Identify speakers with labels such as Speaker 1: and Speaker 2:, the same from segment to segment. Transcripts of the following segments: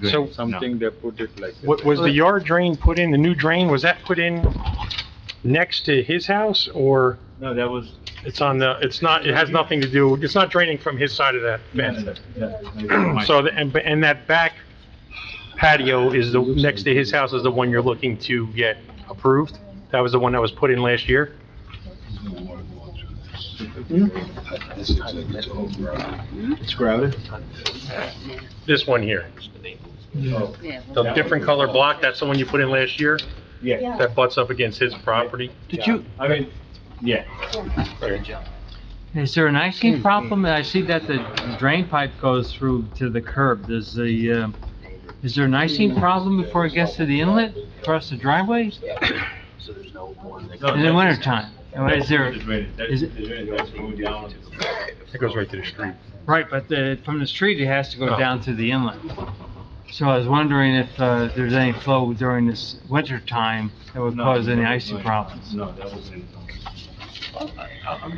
Speaker 1: good.
Speaker 2: So-
Speaker 1: Something they put it like.
Speaker 2: Wa- Was the yard drain put in, the new drain, was that put in next to his house, or
Speaker 1: No, that was.
Speaker 2: it's on the, it's not, it has nothing to do, it's not draining from his side of that fence? So, the- and, and that back patio is the, next to his house is the one you're looking to get approved? That was the one that was put in last year?
Speaker 1: It's crowded?
Speaker 2: This one here,
Speaker 1: No.
Speaker 3: Yeah. well,
Speaker 2: the different color block, that's the one you put in last year?
Speaker 1: Yeah.
Speaker 2: That butts up against his property?
Speaker 4: Did you,
Speaker 1: I mean, yeah.
Speaker 4: is there an icing problem? I see that the drain pipe goes through to the curb. Does the, um, is there an icing problem before it gets to the inlet across the driveways? In the wintertime? Or Is there, is it-
Speaker 2: It goes right to the street.
Speaker 4: right, but the, from the street, it has to go down to the inlet. So I was wondering if, uh, there's any flow during this wintertime that would cause any icing problems?
Speaker 1: No, that wasn't.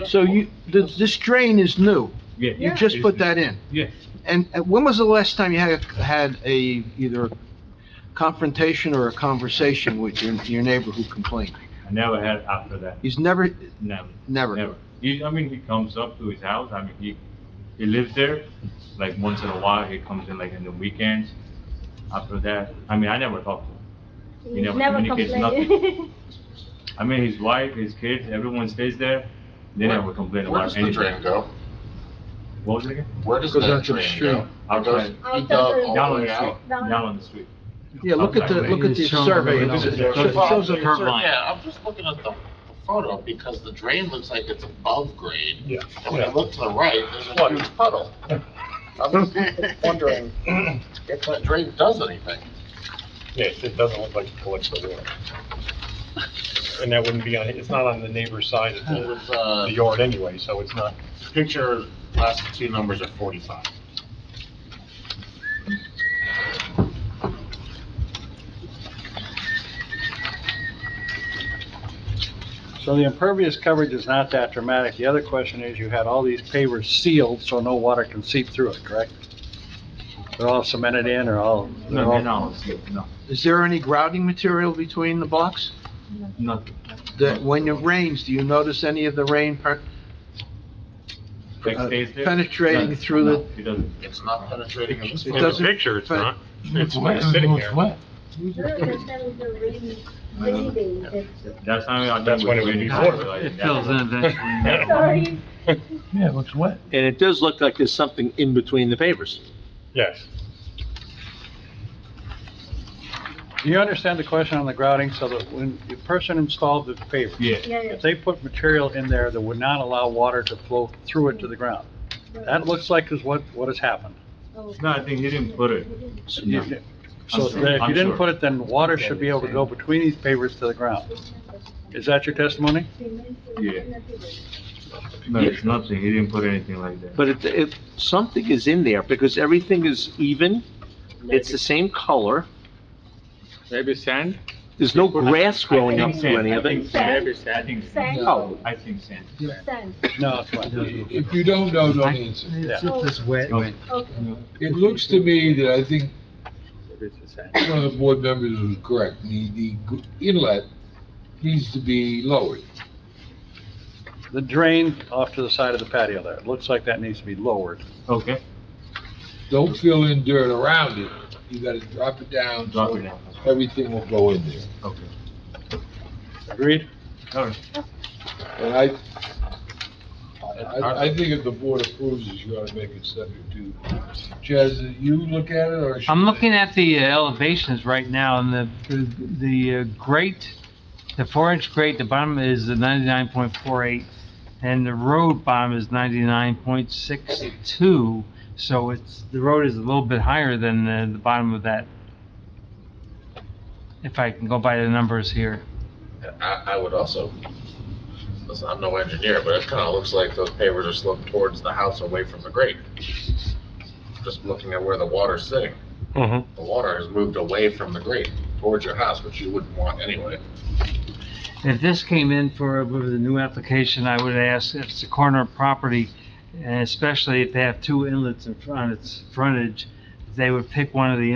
Speaker 5: So you, th- this drain is new.
Speaker 1: Yeah.
Speaker 5: You just put that in.
Speaker 1: Yeah.
Speaker 5: And uh, when was the last time you had, a- had a, either confrontation or a conversation with your, your neighbor who complained?
Speaker 1: I never had after that,
Speaker 5: He's never,
Speaker 1: never.
Speaker 5: never.
Speaker 1: Never. He, I mean, he comes up to his house, I mean, he, he lives there, like, once in a while, he comes in, like, in the weekends. After that, I mean, I never talk to him. He never communicates
Speaker 6: complain.
Speaker 1: I mean, his wife, his kids, everyone stays there, they never complain
Speaker 7: Where does
Speaker 1: about
Speaker 7: the drain
Speaker 1: anything.
Speaker 7: go?
Speaker 1: What was it again?
Speaker 7: Where does that drain go? It goes,
Speaker 1: Outside,
Speaker 7: he dug
Speaker 1: down
Speaker 7: all
Speaker 1: on
Speaker 7: the way
Speaker 1: the street,
Speaker 7: out?
Speaker 1: down on the street.
Speaker 5: Yeah, look at the, look at the survey.
Speaker 4: It's
Speaker 5: It
Speaker 4: showing-
Speaker 5: shows a
Speaker 4: Curb line.
Speaker 7: Yeah, I'm just looking at the the photo because the drain looks like it's above grade. Yeah. And when you look to the right, there's a huge puddle. I'm just wondering if that drain does anything.
Speaker 2: Yes, it doesn't look like it collects the water. And that wouldn't be on, it's not on the neighbor's side of
Speaker 7: It
Speaker 2: the
Speaker 7: was, uh,
Speaker 2: the yard anyway, so it's not.
Speaker 7: picture, last two numbers are forty-five.
Speaker 8: So the impervious coverage is not that dramatic. The other question is, you had all these pavers sealed, so no water can seep through it, correct? They're all cemented in, or all, they're
Speaker 1: No, they're
Speaker 8: all-
Speaker 1: not on the street, no,
Speaker 5: Is there any grouting material between the blocks?
Speaker 1: nothing.
Speaker 5: That when it rains, do you notice any of the rain per-
Speaker 1: Like,
Speaker 5: uh,
Speaker 1: stays there?
Speaker 5: penetrating
Speaker 1: No,
Speaker 5: through
Speaker 1: no,
Speaker 5: the-
Speaker 1: He doesn't.
Speaker 7: It's not penetrating in this
Speaker 5: It
Speaker 2: In the
Speaker 5: doesn't-
Speaker 2: picture, it's
Speaker 5: but-
Speaker 2: not. It's sitting there.
Speaker 1: That's how I.
Speaker 2: That's when it would be water.
Speaker 4: It fills in eventually.
Speaker 6: Sorry.
Speaker 9: And it does look like there's something in between the papers.
Speaker 2: Yes.
Speaker 8: Do you understand the question on the grouting, so that when the person installed the paver,
Speaker 1: Yeah.
Speaker 6: Yeah,
Speaker 8: if they put material in there that would not allow water to flow through it to the ground? That looks like is what, what has happened.
Speaker 6: Oh.
Speaker 1: No, I think he didn't put it. No.
Speaker 8: So
Speaker 1: I'm sure-
Speaker 8: if
Speaker 1: I'm
Speaker 8: you didn't
Speaker 1: sure.
Speaker 8: put it, then water should be able to go between these pavers to the ground. Is that your testimony?
Speaker 1: No, it's nothing, he didn't put anything like that.
Speaker 9: But if, if something is in there, because everything is even, it's the same color,
Speaker 1: Maybe sand?
Speaker 9: there's no grass growing up through any of
Speaker 1: I think
Speaker 9: it.
Speaker 1: sand,
Speaker 6: Maybe
Speaker 1: I think sand.
Speaker 6: Sand.
Speaker 9: No,
Speaker 1: I think sand.
Speaker 6: Sand,
Speaker 8: No, it's not.
Speaker 10: If you don't know, don't answer.
Speaker 8: It's
Speaker 6: just
Speaker 4: wet.
Speaker 1: Okay.
Speaker 6: okay.
Speaker 10: It looks to me that I think one of the board members was correct. The, the inlet needs to be lowered.
Speaker 8: The drain off to the side of the patio there, it looks like that needs to be lowered.
Speaker 1: Okay,
Speaker 10: Don't fill in dirt around it. You gotta drop it down
Speaker 1: drop it
Speaker 10: so
Speaker 1: down.
Speaker 10: everything will go in there.
Speaker 1: Okay.
Speaker 8: Agreed?
Speaker 1: All right.
Speaker 10: And I, I, I think if the board approves this, you ought to make it subject to, Chaz, did you look at it or? should
Speaker 4: I'm
Speaker 10: I?
Speaker 4: looking at the uh, elevations right now, and the, the uh, grate, the four-inch grate, the bottom is the 99.48, and the road bottom is 99.62, so it's, the road is a little bit higher than the, the bottom of that, if I can go by the numbers here.
Speaker 7: I, I would also, listen, I'm no engineer, but it kinda looks like those pavers are sloped towards the house away from the grate. Just looking at where the water's sitting,
Speaker 2: Mm-hmm.
Speaker 7: the water has moved away from the grate towards your house, which you wouldn't want anyway.
Speaker 4: If this came in for, with the new application, I would ask if it's a corner property, and especially if they have two inlets in front, its frontage, they would pick one of the